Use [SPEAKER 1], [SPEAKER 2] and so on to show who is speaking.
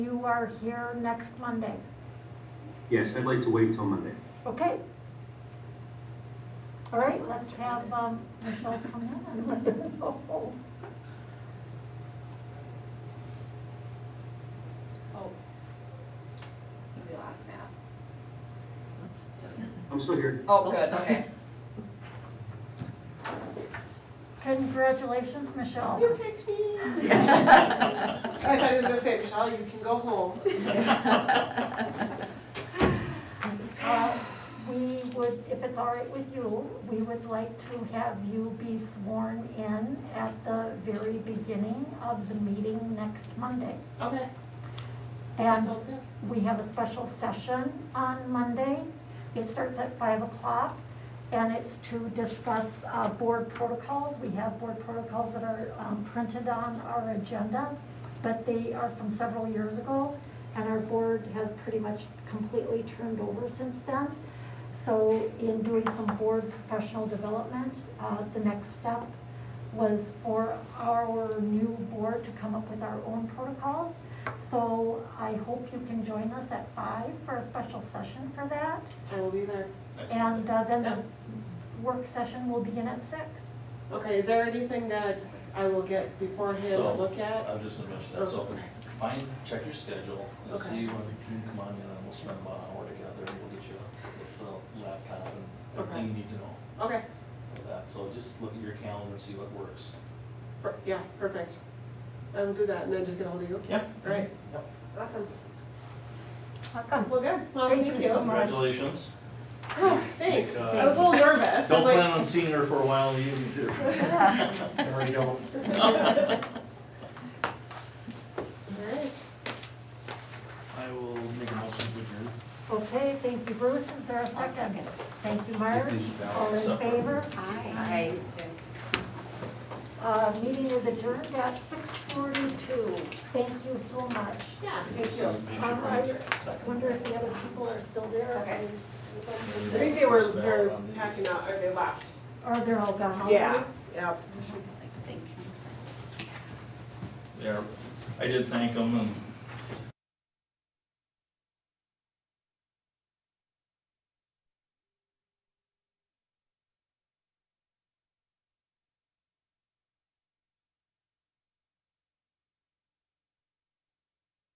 [SPEAKER 1] You are here next Monday,
[SPEAKER 2] Yes, I'd like to wait till Monday.
[SPEAKER 1] okay? All right, let's have um, Michelle come in and let her know.
[SPEAKER 3] Oh. We lost Matt.
[SPEAKER 2] I'm still here.
[SPEAKER 3] Oh, good, okay.
[SPEAKER 1] Congratulations, Michelle.
[SPEAKER 4] You picked me. I thought he was gonna say, Michelle, you can go home.
[SPEAKER 1] Uh, We would, if it's all right with you, we would like to have you be sworn in at the very beginning of the meeting next Monday.
[SPEAKER 4] Okay, that
[SPEAKER 1] And
[SPEAKER 4] sounds good.
[SPEAKER 1] we have a special session on Monday. It starts at 5 o'clock, and it's to discuss uh, board protocols. We have board protocols that are um, printed on our agenda, but they are from several years ago, and our board has pretty much completely turned over since then. So in doing some board professional development, uh, the next step was for our new board to come up with our own protocols. So I hope you can join us at five for a special session for that.
[SPEAKER 4] I will be there.
[SPEAKER 1] And uh, then
[SPEAKER 4] Yeah.
[SPEAKER 1] the work session will begin at six.
[SPEAKER 4] Okay, is there anything that I will get beforehand to
[SPEAKER 5] So-
[SPEAKER 4] look at?
[SPEAKER 5] I'm just gonna mention that, so find, check your schedule and
[SPEAKER 4] Okay.
[SPEAKER 5] see when you can come on in and we'll spend about an hour together and we'll get you the laptop and everything you need to know
[SPEAKER 4] Okay,
[SPEAKER 5] for that. So just look at your calendar and see what works.
[SPEAKER 4] per- yeah, perfect. I will do that and then just get hold of you.
[SPEAKER 5] Yep.
[SPEAKER 4] Right,
[SPEAKER 5] Yep.
[SPEAKER 4] awesome.
[SPEAKER 1] Welcome.
[SPEAKER 4] Well, good, well,
[SPEAKER 1] Thank
[SPEAKER 4] thank
[SPEAKER 1] you so
[SPEAKER 4] you.
[SPEAKER 1] much.
[SPEAKER 5] Congratulations.
[SPEAKER 4] Thanks,
[SPEAKER 5] Like,
[SPEAKER 4] I was a little nervous. I'm
[SPEAKER 5] uh, Don't
[SPEAKER 4] like-
[SPEAKER 5] plan on seeing her for a while, you can do. There we go.
[SPEAKER 4] All right.
[SPEAKER 5] I will make a motion to adjourn.
[SPEAKER 1] Okay, thank you, Bruce. Is there a second? Thank you, Marge. All in favor?
[SPEAKER 3] Hi.
[SPEAKER 1] Uh, Meeting is adjourned at six forty-two. Thank you so much.
[SPEAKER 4] Yeah, thank you.
[SPEAKER 1] Um, I wonder if the other people are still there?
[SPEAKER 3] Okay.
[SPEAKER 4] I think they were, they're packing out, or they left.
[SPEAKER 1] Or they're all gone already?
[SPEAKER 4] Yeah, yeah.
[SPEAKER 5] Yeah, I did thank them and